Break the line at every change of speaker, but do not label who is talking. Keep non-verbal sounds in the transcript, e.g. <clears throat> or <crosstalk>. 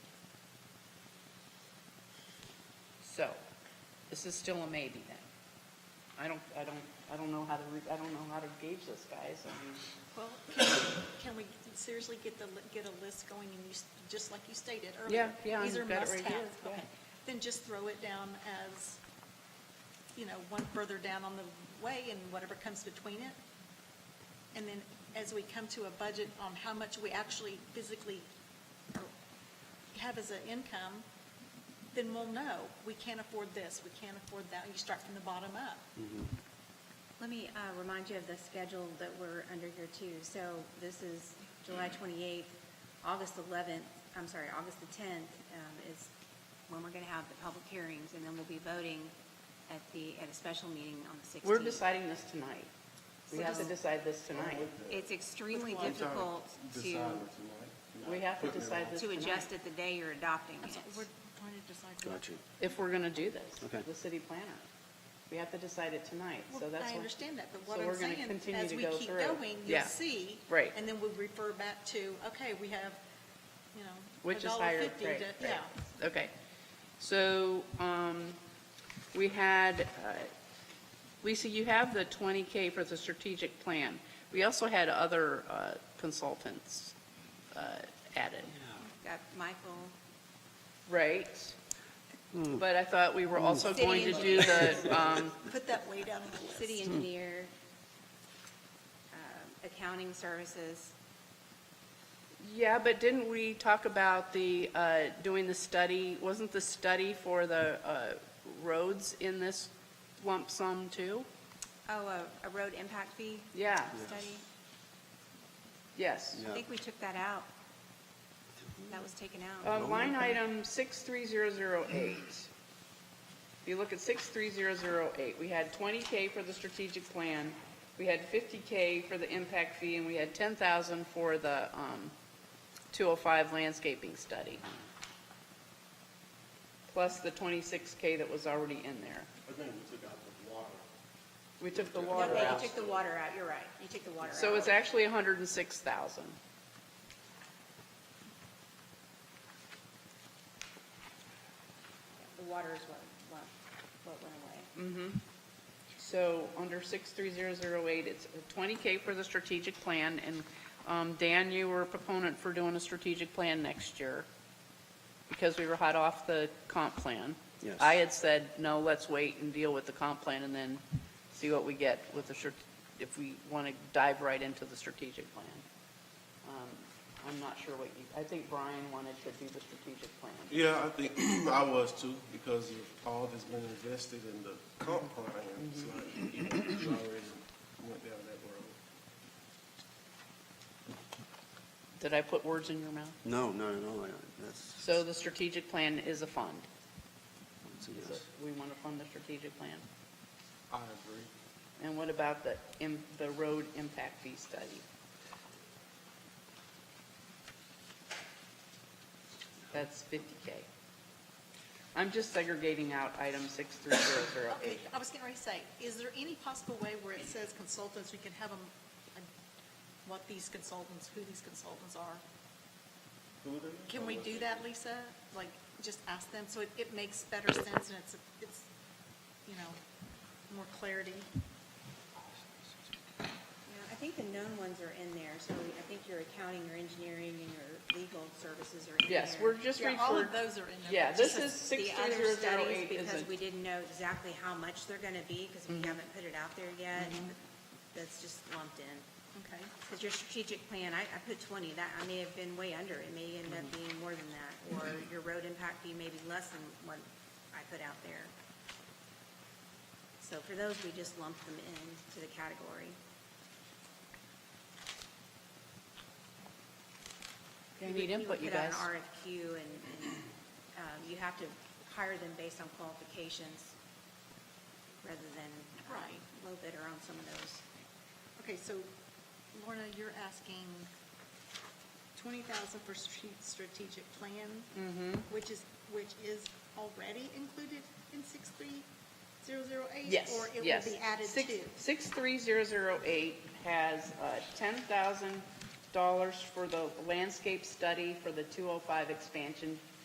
So, this is still a maybe then. I don't, I don't, I don't know how to, re- I don't know how to gauge this, guys. I mean,
Well, can we- can we seriously get the, li- get a list going and you, s- just like you stated earlier?
Yeah, yeah,
These
I've
are
got it right
must-have.
here, yeah.
Okay. Then just throw it down as, you know, one further down on the way and whatever comes between it. And then as we come to a budget on how much we actually physically or have as an income, then we'll know, we can't afford this, we can't afford that. You start from the bottom up.
Let me uh, remind you of the schedule that we're under here too. So this is July 28th, August 11th, I'm sorry, August the 10th um, is when we're going to have the public hearings, and then we'll be voting at the, at a special meeting on the 16th.
We're deciding this tonight. We
So
have to
just-
decide this tonight.
It's extremely
Which one?
difficult to,
We have to decide this
to
tonight.
adjust it the day you're adopting
That's all. We're
it.
trying to decide. what-
Got you.
If we're gonna do this,
Okay.
the city planner. We have to decide it tonight, so
Well,
that's.
I
what-
understand that, but
so
what
we're
I'm
gonna
saying,
continue
as
to
we
go
keep
through.
going, you'll
Yeah.
see.
right.
And then we refer back to, okay, we have, you know,
Which
a
is
dollar
higher,
fifty to,
right,
yeah.
right. Okay. So, um, we had, uh, Lisa, you have the 20K for the strategic plan. We also had other uh, consultants uh, added,
Got Uh, Michael,
right? But I thought we were also
City
going to do
engineer.
the, <laughs> um,
Put that way down on the list.
city engineer, um, accounting services.
yeah, but didn't we talk about the, uh, doing the study? Wasn't the study for the uh, roads in this lump sum too?
Oh, a- a road impact fee
Yeah,
study.
yes.
I think we took that out. That was taken out.
Um, Line item 63008. If you look at 63008, we had 20K for the strategic plan, we had 50K for the impact fee, and we had 10,000 for the um, 205 landscaping study, plus the 26K that was already in there.
But then we took out the water.
We took the
No,
water
wait,
out.
You took the water out, you're right. You took the water out.
So it's actually 106,000.
The water is what, what, what
Mm.
went away.
So under 63008, it's 20K for the strategic plan, and um, Dan, you were a proponent for doing a strategic plan next year because we were hot off the comp plan.
Yes.
I had said, no, let's wait and deal with the comp plan and then see what we get with the, strat- if we want to dive right into the strategic plan. Um, I'm not sure what you, I think Brian wanted to do the strategic plan.
Yeah, I think <clears throat> I was too, because of all that's been invested in the comp plan, it's like, you know, it's already went down that road.
Did I put words in your mouth?
No, no, no, that's.
So the strategic plan is a fund.
that's a
Is
yes.
it- We want to fund the strategic plan.
I agree.
And what about the, im- the road impact fee study? That's 50K. I'm just segregating out item
Okay,
63008.
I was getting ready to say, is there any possible way where it says consultants, we can have them, what these consultants, who these consultants are?
Who they?
Can we do that, Lisa? Like, just ask them, so it, it makes better sense and it's, it's, you know, more clarity.
Yeah, I think the known ones are in there, so I think your accounting, your engineering, and your legal services are in there.
Yes, we're just
Yeah, all
referring,
of those are in there.
yeah,
but
this
just-
is
The other studies,
63008 is
because we
a,
didn't know exactly how much they're gonna be, because we
Mm-hmm.
haven't put it out there yet. That's just lumped in.
Okay.
Because your strategic plan, I, I put twenty, that, I may have been way under, it may end up
Mm-hmm.
being more than that, or your road impact fee may be less than what I put out there. So for those, we just lumped them in to the category.
we need
would-
input, you
would
guys.
Put out an RFQ, and, and, um, you have to hire them based on qualifications, rather than uh,
Right.
low bidder on some of those.
Okay, so Lorna, you're asking twenty thousand for strate- strategic plan?
Mm-hmm.
Which is, which is already included in six three zero zero eight?
yes,
Or it
yes.
will be added
Six-
to?
63008 has uh, $10,000 for the landscape study for the 205 expansion